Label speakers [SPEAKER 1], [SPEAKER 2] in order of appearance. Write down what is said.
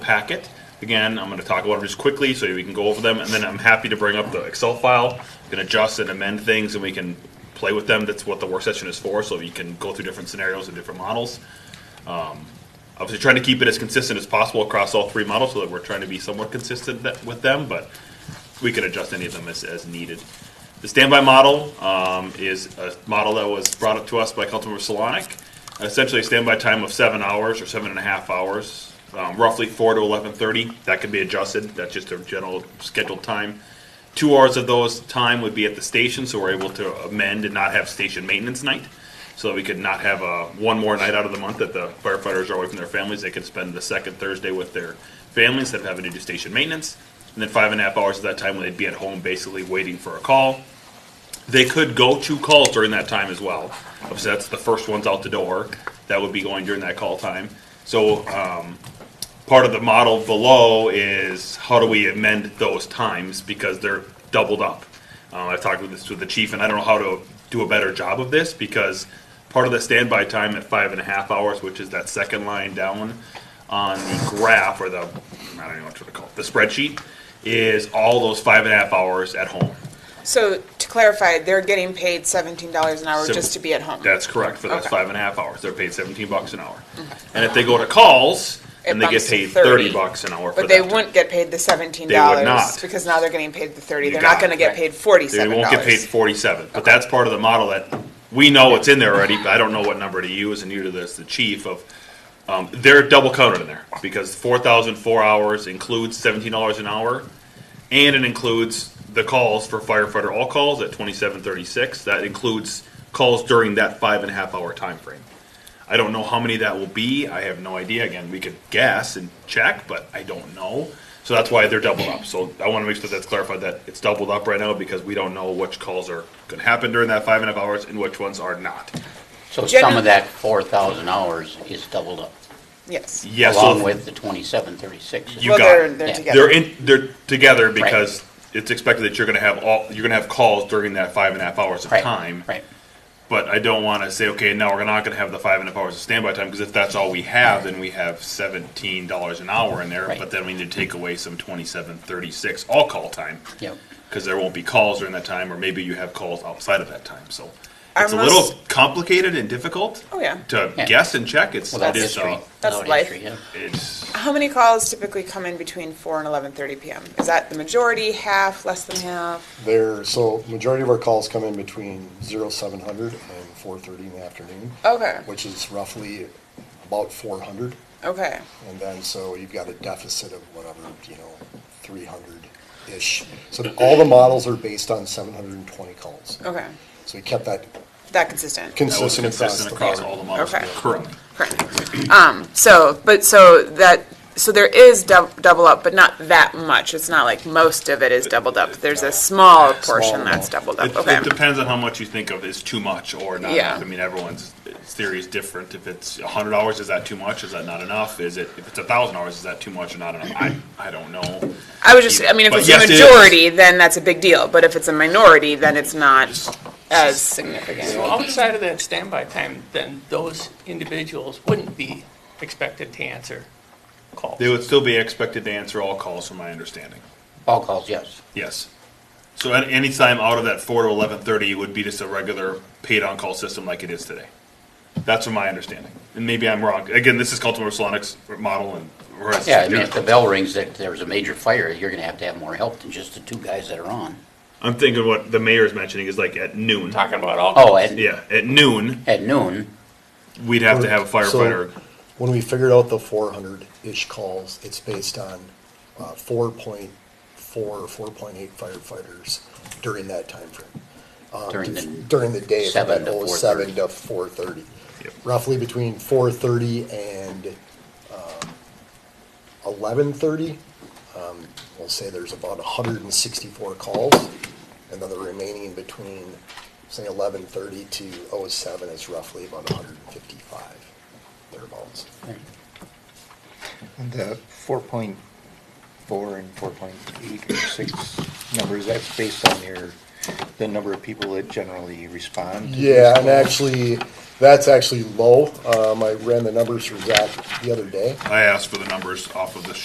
[SPEAKER 1] packet. Again, I'm gonna talk about them just quickly so we can go over them, and then I'm happy to bring up the Excel file, We can adjust and amend things, and we can play with them. That's what the work session is for, so you can go through different scenarios and different models. Um, Obviously, trying to keep it as consistent as possible across all three models, so that we're trying to be somewhat consistent that- with them, but we can adjust any of them as, as needed. The standby model um, is a model that was brought up to us by Councilmember Solonic. Essentially, a standby time of seven hours or seven and a half hours, um, roughly four to eleven thirty. That can be adjusted. That's just a general scheduled time. Two hours of those time would be at the station, so we're able to amend and not have station maintenance night. So that we could not have uh one more night out of the month that the firefighters are away from their families. They could spend the second Thursday with their families instead of having to do station maintenance. And then five and a half hours of that time when they'd be at home basically waiting for a call. They could go to calls during that time as well. Obviously, that's the first ones out the door. That would be going during that call time. So um, part of the model below is how do we amend those times because they're doubled up. Uh, I've talked with this with the chief, and I don't know how to do a better job of this because part of the standby time at five and a half hours, which is that second line down on the graph or the I don't know what to call it, the spreadsheet, is all those five and a half hours at home.
[SPEAKER 2] So to clarify, they're getting paid seventeen dollars an hour
[SPEAKER 1] Sim-
[SPEAKER 2] just to be at home.
[SPEAKER 1] That's correct for those
[SPEAKER 2] Okay. Mm-hmm.
[SPEAKER 1] five and a half hours. They're paid seventeen bucks an hour, and if they go to calls,
[SPEAKER 2] It
[SPEAKER 1] then they get
[SPEAKER 2] bumps to
[SPEAKER 1] paid
[SPEAKER 2] 30,
[SPEAKER 1] thirty bucks an hour. for
[SPEAKER 2] But they
[SPEAKER 1] that time.
[SPEAKER 2] wouldn't get paid the seventeen
[SPEAKER 1] They would
[SPEAKER 2] dollars
[SPEAKER 1] not.
[SPEAKER 2] because now they're getting paid the thirty.
[SPEAKER 1] You
[SPEAKER 2] They're
[SPEAKER 1] got
[SPEAKER 2] not
[SPEAKER 1] it.
[SPEAKER 2] gonna get paid
[SPEAKER 1] They
[SPEAKER 2] forty-seven
[SPEAKER 1] won't get paid
[SPEAKER 2] dollars.
[SPEAKER 1] forty-seven, but that's part of the model that, we know it's in there already, but I don't know what number to use, and you to this, the chief of, um, they're double counted in there, because four thousand four hours includes seventeen dollars an hour, and it includes the calls for firefighter all calls at twenty-seven thirty-six, that includes calls during that five and a half hour time frame. I don't know how many that will be. I have no idea. Again, we could guess and check, but I don't know. So that's why they're doubled up. So I want to make sure that's clarified that it's doubled up right now because we don't know which calls are going to happen during that five and a half hours and which ones are not.
[SPEAKER 3] So some
[SPEAKER 2] Generally-
[SPEAKER 3] of that four thousand hours is doubled up,
[SPEAKER 2] Yes.
[SPEAKER 1] Yeah,
[SPEAKER 3] along
[SPEAKER 1] so
[SPEAKER 3] with the twenty-seven thirty-six.
[SPEAKER 1] You
[SPEAKER 2] Well,
[SPEAKER 1] got
[SPEAKER 2] they're,
[SPEAKER 1] it.
[SPEAKER 2] they're
[SPEAKER 3] Yeah.
[SPEAKER 1] they're
[SPEAKER 2] together.
[SPEAKER 1] in they're together because it's expected that you're going to have all you're going to have calls during that five and a half hours of
[SPEAKER 3] Right,
[SPEAKER 1] time.
[SPEAKER 3] Right,
[SPEAKER 1] But I don't want to say okay, now we're not going to have the five and a half hours of standby time because if that's all we have, then we have seventeen dollars an hour in there.
[SPEAKER 3] Right.
[SPEAKER 1] But then we need to take away some twenty-seven thirty-six all call time.
[SPEAKER 3] yep.
[SPEAKER 1] because there won't be calls during that time, or maybe you have calls outside of that time. So
[SPEAKER 2] Our
[SPEAKER 1] it's a
[SPEAKER 2] most-
[SPEAKER 1] little complicated and difficult
[SPEAKER 2] Oh, yeah.
[SPEAKER 1] to
[SPEAKER 3] Yeah.
[SPEAKER 1] guess and check. It's
[SPEAKER 3] Without
[SPEAKER 1] it is,
[SPEAKER 3] history.
[SPEAKER 1] uh,
[SPEAKER 2] That's
[SPEAKER 3] without
[SPEAKER 2] life.
[SPEAKER 3] history, yeah.
[SPEAKER 1] it's
[SPEAKER 2] How many calls typically come in between four and eleven thirty PM? Is that the majority, half, less than half?
[SPEAKER 4] There, so majority of our calls come in between zero seven hundred and four thirty in the afternoon,
[SPEAKER 2] Okay,
[SPEAKER 4] which is roughly about four hundred.
[SPEAKER 2] okay.
[SPEAKER 4] And then, so you've got a deficit of whatever, you know, three hundred-ish. So all the models are based on seven hundred and twenty calls.
[SPEAKER 2] Okay,
[SPEAKER 4] So we kept that
[SPEAKER 2] that consistent.
[SPEAKER 1] that was
[SPEAKER 4] consistent across
[SPEAKER 1] consistent
[SPEAKER 4] the
[SPEAKER 1] across
[SPEAKER 4] board.
[SPEAKER 1] all the models
[SPEAKER 2] Okay.
[SPEAKER 1] currently.
[SPEAKER 2] Correct. Um, so, but so that, so there is dou- double up, but not that much. It's not like most of it is doubled up. There's a small portion that's doubled up.
[SPEAKER 1] It,
[SPEAKER 2] Okay.
[SPEAKER 1] it depends on how much you think of is too much or not.
[SPEAKER 2] Yeah.
[SPEAKER 1] I mean, everyone's theory is different. If it's hundred hours, is that too much? Is that not enough? Is it if it's thousand hours, is that too much or not enough? I, I don't know.
[SPEAKER 2] I was just, I mean, if
[SPEAKER 1] But
[SPEAKER 2] it's
[SPEAKER 1] yes,
[SPEAKER 2] a
[SPEAKER 1] it is.
[SPEAKER 2] majority, then that's a big deal. But if it's a minority, then it's not as
[SPEAKER 5] So
[SPEAKER 2] significant.
[SPEAKER 5] outside of that standby time, then those individuals wouldn't be expected to answer calls.
[SPEAKER 1] They would still be expected to answer all calls, from my understanding.
[SPEAKER 3] All calls, yes.
[SPEAKER 1] Yes. So at any time out of that four to eleven thirty would be just a regular paid on-call system like it is today. That's from my understanding, and maybe I'm wrong. Again, this is Cultivar Salonic's model and. or it's-
[SPEAKER 3] Yeah, I mean, if the bell rings that there's a major fire, you're gonna have to have more help than just the two guys that are on.
[SPEAKER 1] I'm thinking what the mayor is mentioning is like at noon.
[SPEAKER 5] Talking about all
[SPEAKER 3] Oh,
[SPEAKER 5] calls.
[SPEAKER 3] at,
[SPEAKER 1] Uh, Yeah, at noon,
[SPEAKER 3] at noon,
[SPEAKER 1] we'd have to have a
[SPEAKER 4] So-
[SPEAKER 1] firefighter.
[SPEAKER 4] When we figured out the four hundred-ish calls, it's based on uh, four point four or four point eight firefighters during that timeframe.
[SPEAKER 1] Uh,
[SPEAKER 4] Um,
[SPEAKER 3] During the
[SPEAKER 4] During the day, from
[SPEAKER 3] seven
[SPEAKER 4] that
[SPEAKER 3] to
[SPEAKER 4] oh seven to four thirty.
[SPEAKER 1] Yep.
[SPEAKER 4] Roughly between four thirty and um, eleven thirty. Um, We'll say there's about hundred and sixty-four calls, and then the remaining between, say, eleven thirty to oh seven is roughly about hundred and fifty-five, thereabouts.
[SPEAKER 6] The four point four and four point eight or six numbers, that's based on your, the number of people that generally respond? to these
[SPEAKER 4] Yeah, and
[SPEAKER 6] calls?
[SPEAKER 4] actually, that's actually low. Um, I ran the numbers for Zach the other day.
[SPEAKER 1] I asked for the numbers off of the